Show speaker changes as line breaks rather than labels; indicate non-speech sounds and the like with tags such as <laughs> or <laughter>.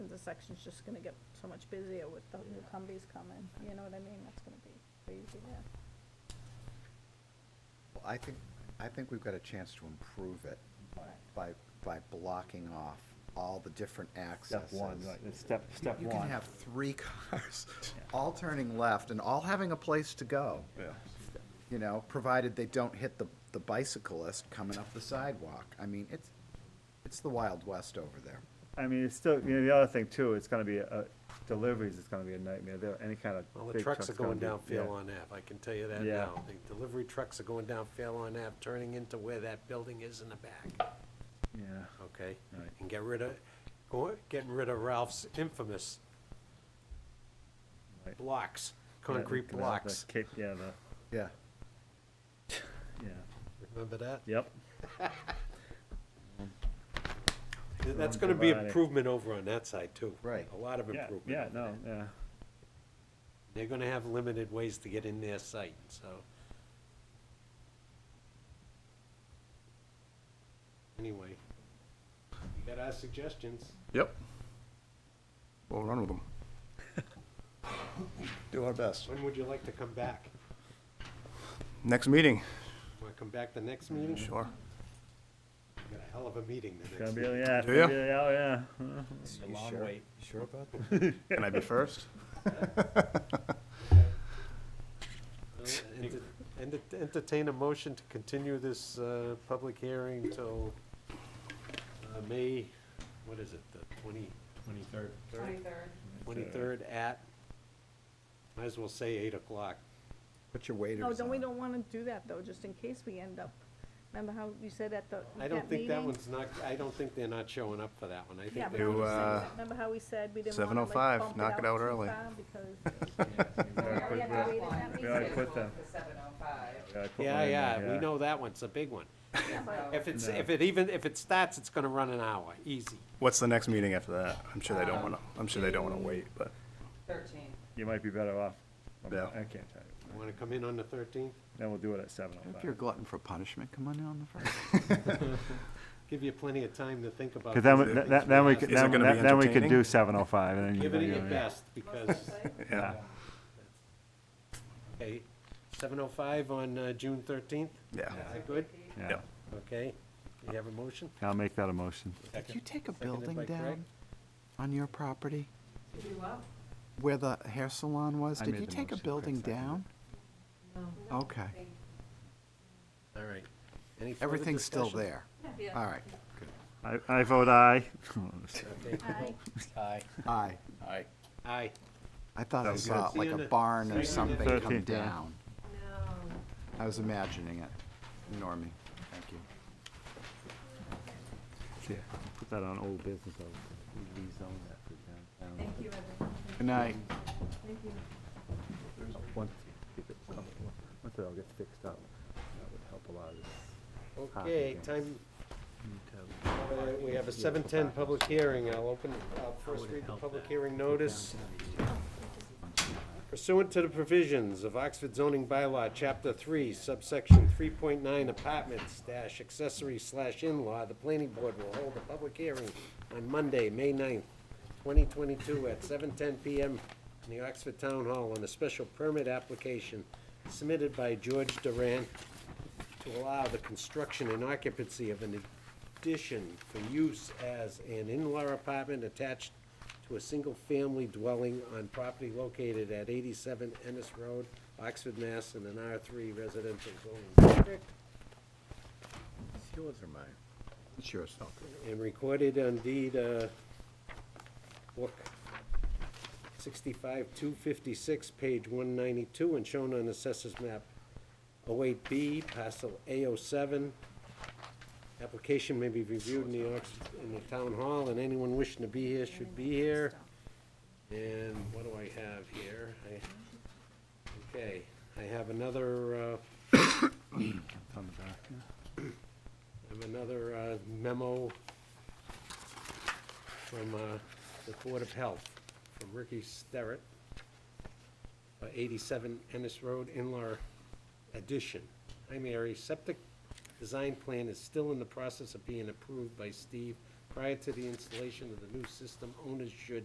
the section's just gonna get so much busier with the new Humvees coming, you know what I mean? That's gonna be crazy there.
Well, I think, I think we've got a chance to improve it
Alright.
by, by blocking off all the different accesses.
Step one, right, it's step, step
You
one.
can have three <laughs> cars,
Yeah.
all turning left and all having a place to go,
Yeah.
you know, provided they don't hit the, the bicyclist coming up the sidewalk. I mean, it's, it's the Wild West over there.
I mean, it's still, you know, the other thing too, it's gonna be, uh, deliveries is gonna be a nitmare, there, any kind of.
Well, the
big
trucks are
gonna
going
be-
down
yeah.
Fairlawn Ave, I can tell you that
Yeah.
now. The delivery trucks are going down Fairlawn Ave, turning into where that building is in the back,
Yeah.
okay?
Right.
And get rid of, go, getting rid of Ralph's infamous
Right.
blocks, concrete
Yeah, the- the
blocks.
cape- Yeah, the,
Yeah.
yeah,
Remember that?
yep,
That's
Don't
gonna be
provide it.
improvement over on that side too.
Right.
A lot of
yeah,
improvement.
yeah,
over
no,
there.
yeah,
They're gonna have limited ways to get in their site, so. Anyway, you got our suggestions.
Yep. We'll run with them.
Do our best.
When would you like to come back?
Next meeting,
Want to come back the next meeting?
sure.
We Got a hell of a meeting the
gonna
next.
be,
meeting.
yeah, it's
Do
gonna
ya?
be, oh, yeah.
You sure? You sure about that?
Can I be <laughs> first?
Uh, enter- enter- Entertain a motion to continue this uh, public hearing till uh, May, what is it, the 20? 23rd.
Twenty-third.
23rd at, might as well say 8 o'clock.
Put your waiters
No, then we
on.
don't wanna do that though, just in case we end up, remember how you said at the,
I
that
don't think that
meeting?
one's not, I don't think they're not showing up for that one. I
Yeah,
think
but
they're,
I'm
You,
just saying
uh,
that- remember how we said we didn't wanna
7:05,
like bump it
knock it
out
out
too
early.
far because already
We already
<laughs>
have
put that-
waited that
we already
meeting.
put them,
seven oh five.
we already put one
yeah,
in
yeah,
there,
we know that one's a big one. If it's,
No.
if it even, if it starts, it's gonna run an hour, easy.
What's the next meeting after that? I'm sure they don't wanna, I'm sure they don't wanna wait, but,
Thirteen.
You might be better off, I'm-
Yeah.
I can't tell you,
You wanna come in on the 13th?
then we'll do it at seven oh
If you're a
five.
glutton for punishment, come on in on the first.
Give you plenty of time to think about.
Cause then,
these
we-
things
then, then we
ask.
could,
Is it
then,
gonna be
then we could do
entertaining?
seven oh five, and then you.
Give it
you
your
know,
best, because,
yeah,
okay, 7:05 on uh, June 13th?
yeah,
Is that good?
Yeah,
yeah.
Okay. You have a motion?
I'll make that a motion.
Did you take a
Seconded by
building
Craig.
down on your property
Did you up?
where the hair salon was?
I
Did
made
you
the
take a
motion, Craig
building
seconded it.
down? Okay.
All right. Any further
Everything's still
discussion?
there. <laughs> All right.
I, I vote <laughs> aye.
I,
Aye.
Aye.
Aye.
I thought I
Sounds
saw
good.
like
See you
a
in a-
barn
see you in
or
a-
something come
13th, yeah.
down.
No.
I was imagining it. Ignore me. Thank you.
Put that on old business, I'll rezone that for downtown.
Thank you, everyone.
Good night.
Thank you.
Once it all gets fixed up, that would help a lot of this.
Okay, time, uh, we have a 7:10 public hearing. I'll open, I'll first read the public hearing notice. Pursuant to the provisions of Oxford zoning bylaw, Chapter 3, subsection 3.9 apartments dash accessory slash in-law, the planning board will hold a public hearing on Monday, May 9th, 2022 at 7:10 PM in the Oxford Town Hall on a special permit application submitted by George Duran to allow the construction and occupancy of an addition for use as an in-law apartment attached to a single-family dwelling on property located at eighty-seven Ennis Road, Oxford, Mass. in an R three residential zoning district,
Yours or mine? It's yours.
and recorded on deed, uh, book sixty-five, two fifty-six, page one ninety-two, and shown on assessors map 08B, parcel A07. Application may be reviewed in the, Ox- in the town hall, and anyone wishing to be here should be here. And what do I have here? I- Okay, I have another, uh, I have another uh, memo from uh, the Board of Health, from Ricky Sterrett, uh, 87 Ennis Road, in-law addition. Hi, Mary. Septic design plan is still in the process of being approved by Steve. Prior to the installation of the new system, owners should